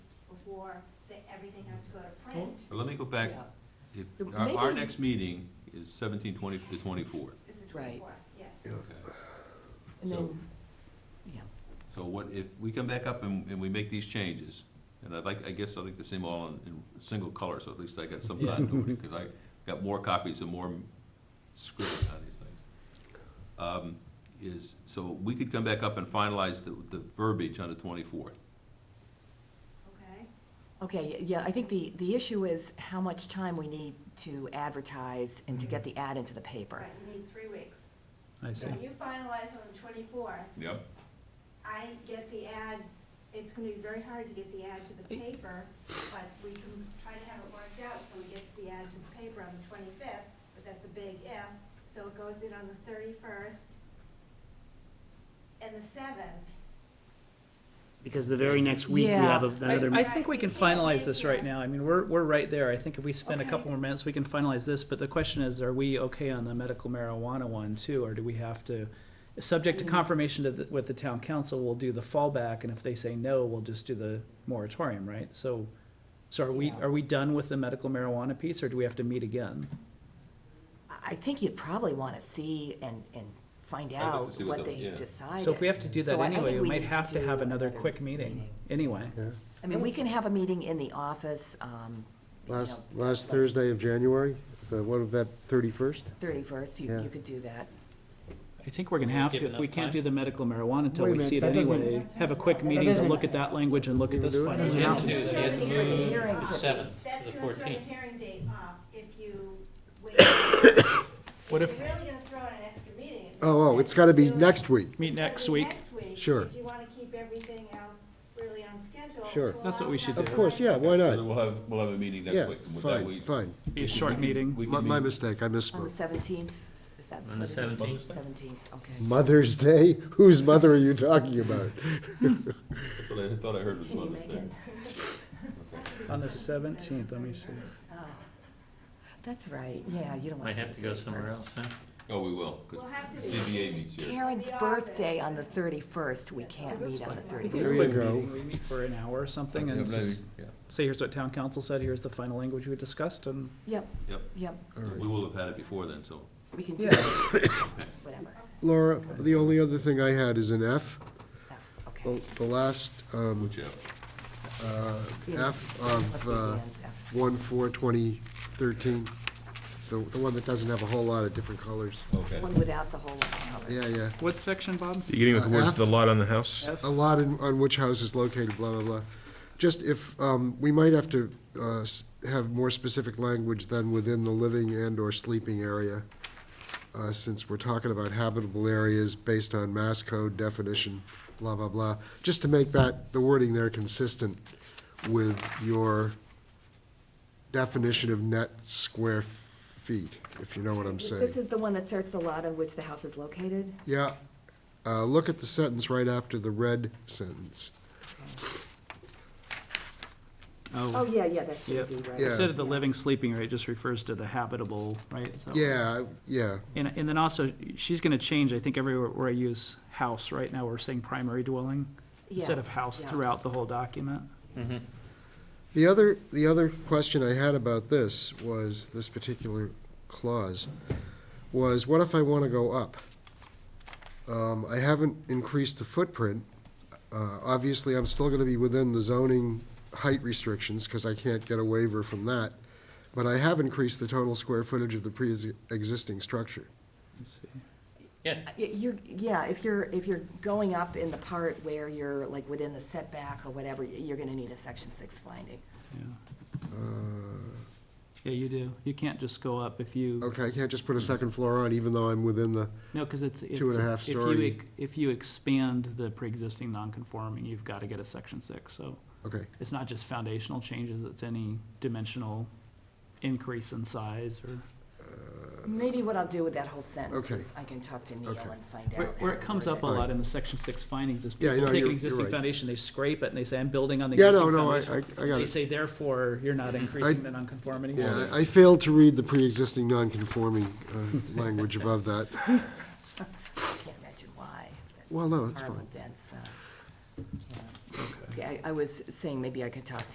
or that everything has to go to print, But let me go back, Yeah. if, So our, our maybe- next meeting is seventeen twenty to twenty-fourth. is the Right. twenty-fourth, yes. Yeah. And So- then, yeah, So what, if we come back up and, and we make these changes, and I'd like, I guess I'd like to see them all in, in single color, so at least I got some continuity, because I got more copies and more script on these things. Um, Is, so we could come back up and finalize the, the verbiage on the twenty-fourth. Okay, okay, yeah, I think the, the issue is how much time we need to advertise and to get Mm-hmm. the ad into the paper. right, you need three weeks. I So see. When you finalize on the twenty-fourth, Yep. I get the ad, it's gonna be very hard to get the ad to the paper, but we can try to have it worked out so we get the ad to the paper on the twenty-fifth, but that's a big if. So it goes in on the thirty-first and the seventh. Because the very next week we have a- Yeah. another. I, I think we can finalize this right now. I mean, we're, we're right there. I think if we spend a Okay. couple more minutes, we can finalize this, but the question is, are we okay on the medical marijuana one too? Or do we have to, subject to Mm. confirmation to the, with the town council, we'll do the fallback, and if they say no, we'll just do the moratorium, right? So, so are we, Yeah. are we done with the medical marijuana piece, or do we have to meet again? I- I think you'd probably want to see and, and find I'd like to out see what what the- they yeah. decided. So if we have to do that So I- I anyway, think we we might need to have to do have another another quick meeting, meeting. anyway. I mean, we can have a meeting in the office, um, you know, Last, last Thursday of January, the, what, of that thirty-first? thirty-first, you, Yeah. you could do that. I think we're gonna have to, if we can't do the medical marijuana until Wait a we minute, see it that doesn't- anyway, have a quick meeting to doesn't- look at that language and look at this Doesn't final. have draft. to do you have to move Hearing the for- seventh That's to the gonna throw the fourteenth. hearing date off if you wait. If What if- You're really gonna throw in an extra meeting. it Oh, oh, makes it's sense gotta be to do it- next week. Meet it's gotta next be week. next week, Sure. If you wanna keep everything else really on schedule. Sure. to That's what we allow should time do. Of to course, yeah, why So not? we'll have, we'll have a meeting next Yeah, week. and with that we- fine, fine. Be a we short can- meeting. we can My, my meet- mistake, I On the misspoke. seventeenth, is that? On the 17th. Seventeenth, okay. Mother's Day? Whose mother are you talking about? That's what I thought I heard was Can you Mother's make Day. it? On the seventeenth, let me see. Oh, That's right, yeah, you don't want Might to. have to go somewhere else, huh? Oh, we will, because We'll have to- CBA meets here. Karen's The office. birthday on the thirty-first, we can't meet on the There thirty-first. you Quick go. meeting, We meet for an hour or something Yeah, and but I- just yeah. say, here's what town council said, here's the final language we discussed, and Yep, Yep, yep, we will have had it before then, so. we can do Yeah. whatever. Laura, the only other thing I had is an F, Oh, Okay. the the last, um, Which, uh, uh, Yeah. F Must of, be uh, Dan's F. one four twenty thirteen, the, the one that doesn't have a whole lot of different colors. okay. One without the whole cover. Yeah, yeah. what section, Bob? You getting with the words, the lot on the house? F? a lot in, on which house is located, blah, blah, blah. Just if, um, we might have to, uh, s- have more specific language than within the living and/or sleeping area, uh, since we're talking about habitable areas based on Mass Code definition, blah, blah, blah. Just to make that, the wording there consistent with your definition of net square feet, if you know what I'm saying. This is the one that starts the lot on which the house is located? Yeah, uh, look at the sentence right after the red sentence. Oh, yeah, yeah, that should Yep. be right. Yeah. Instead of the living, sleeping, right, just refers to the habitable, right? So- Yeah, yeah, And, and then also, she's gonna change, I think everywhere where I use house, right now, we're saying primary dwelling, instead Yeah, of house yeah. throughout the whole document. The other, the other question I had about this was, this particular clause, was what if I want to go up? Um, I haven't increased the footprint. Uh, Obviously, I'm still going to be within the zoning height restrictions because I can't get a waiver from that. But I have increased the total square footage of the pre-existing structure. Let's see. Yeah, Y- You're, yeah, if you're, if you're going up in the part where you're like within the setback or whatever, y- you're gonna need a section six finding. Yeah, Uh, yeah, you do. You can't just go up if you, Okay, I can't just put a second floor on even though I'm within the, no, because it's. Two and a it's- half if you story. ex- If you expand the pre-existing non-conforming, you've got to get a section six, so okay. it's not just foundational changes, it's any dimensional increase in size or. Maybe what I'll do with that whole sentence Uh, Okay. is I can talk to Neil Okay. and find out. Where, where how it to comes word up a it. lot in the section six findings is Yeah, people no, take you're- an you're existing right. foundation, they scrape it, and they say, I'm building on the Yeah, existing no, no, I, I foundation. I got They it. Mm-hmm. say, therefore, you're not increasing the nonconformity. Yeah, I I failed to read the pre-existing non-conforming uh, language above that. I Can't imagine why. It's that Well, no, it's horrible fine. dense, uh, yeah. Okay, I, I was saying maybe I could talk to